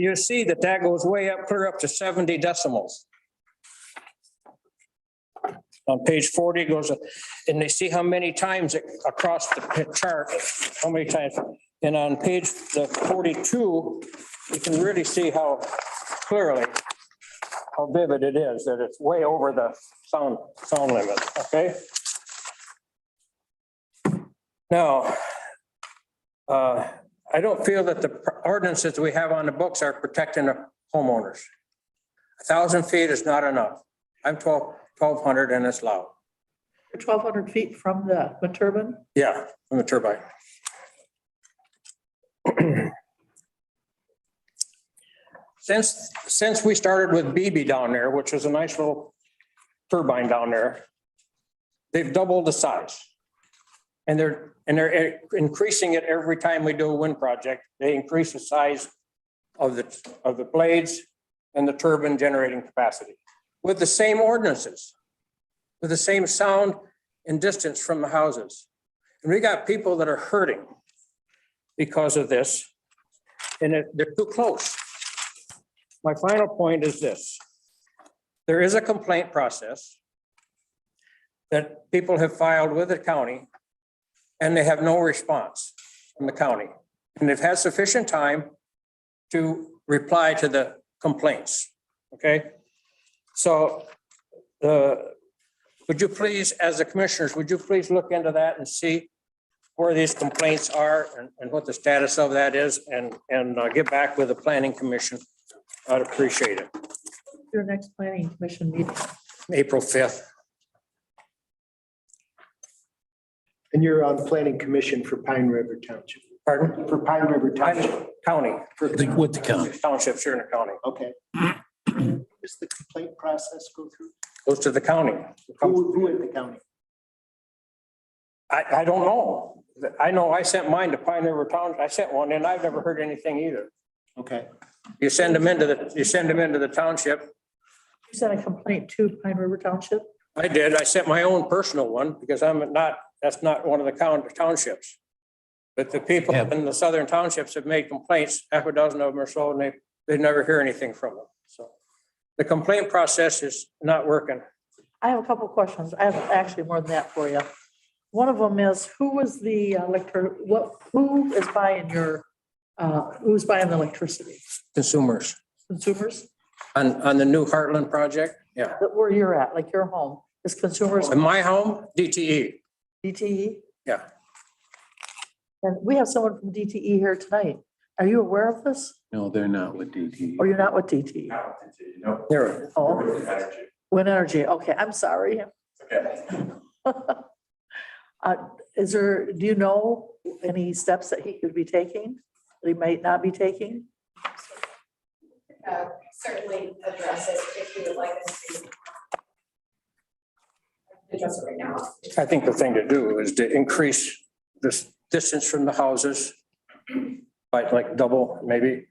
you see that that goes way up, clear up to seventy decimals. On page forty goes, and they see how many times it- across the p- chart, how many times. And on page the forty-two, you can really see how clearly, how vivid it is, that it's way over the sound, sound limit, okay? Now, uh, I don't feel that the ordinances we have on the books are protecting the homeowners. A thousand feet is not enough. I'm twelve, twelve hundred and it's loud. Twelve hundred feet from the wind turbine? Yeah, from the turbine. Since, since we started with BB down there, which was a nice little turbine down there, they've doubled the size. And they're, and they're increasing it every time we do a wind project. They increase the size of the, of the blades and the turbine generating capacity with the same ordinances, with the same sound and distance from the houses. And we got people that are hurting because of this, and it- they're too close. My final point is this. There is a complaint process that people have filed with the county, and they have no response from the county. And they've had sufficient time to reply to the complaints, okay? So the, would you please, as the commissioners, would you please look into that and see where these complaints are and, and what the status of that is and, and uh, get back with the planning commission. I'd appreciate it. Your next planning commission meeting. April fifth. And you're on planning commission for Pine River Township, Pardon? for Pine River Township. County, for- The- With the county. township, here in the county, Okay. Does the complaint process go through? goes to the county. Who, who in the county? I, I don't know. I know I sent mine to Pine River Town. I sent one and I've never heard anything either. Okay, You send them into the, you send them into the township. You sent a complaint to Pine River Township? I did. I sent my own personal one because I'm not, that's not one of the coun- townships. But the people Yeah. in the southern townships have made complaints, half a dozen of them or so, and they, they never hear anything from them. So the complaint process is not working. I have a couple of questions. I have actually more than that for you. One of them is, who was the elector, what, who is buying your, uh, who's buying the electricity? Consumers Consumers on, on the new Heartland project, yeah. that where you're at, like your home, is consumers In my home, E. DTE, DTE? yeah. And we have someone from DTE here tonight. Are you aware of this? No, they're not with DT. Or you're not with E? DTE? Here, Oh, Wind Energy. Okay, I'm sorry. Uh, Is there, do you know any steps that he could be taking, that he might not be taking? uh, certainly address it if you would like us to. Address it right now. I think the thing to do is to increase this distance from the houses by like double maybe.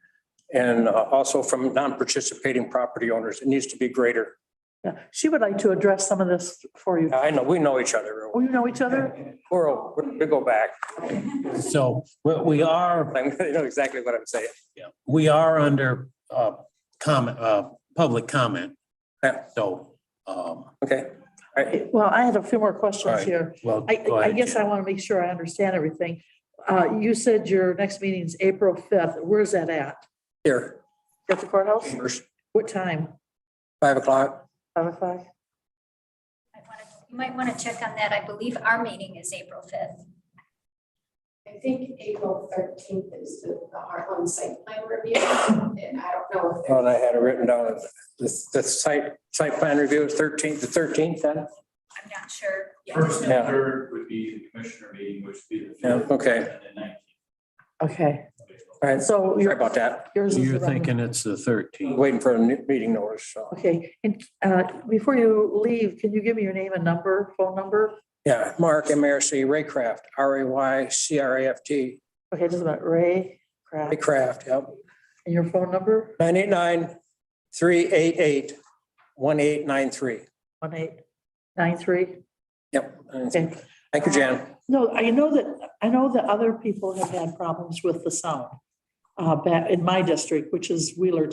And uh, also from non-participating property owners, it needs to be greater. Yeah, she would like to address some of this for you. I know, we know each other. Oh, you know each other? We're, we're- we go back. So what we are, I know exactly what I'm saying. we are under uh, comment, uh, public comment. Yeah. So, um, Okay, Well, I had a few more questions Alright. here. well. I, go I ahead, guess I Jen. want to make sure I understand everything. Uh, You said your next meeting is April 5th. Where's that at? here, At the courthouse? chambers, What time? five o'clock. Five o'clock? I wanna- You might want to check on that. I believe our meeting is April 5th. I think April thirteenth is the the Heartland site plan review, and I don't know if Oh, there's And I had it written down, the, the site, site plan review is thirteenth, the thirteenth then? I'm not sure. First and Yeah. third would be the commissioner meeting, which would be the. Yeah, fifth, okay. And the nineteenth. Okay, All right, so sorry you're. about that. Yours is You're around- thinking it's the thirteenth. Waiting for a new meeting notice, so. Okay, and uh, before you leave, can you give me your name and number, phone number? Yeah, Mark MRC Raycraft, R A Y C R A F T, Okay, just a minute, Ray Kraft, Raycraft, yep. and your phone number, Nine eight nine, three eight eight, one eight nine three. one eight nine three? Yep. Okay, Thank you, Jan. no, I know that, I know that other people have had problems with the sound. uh, back in my district, which is Wheeler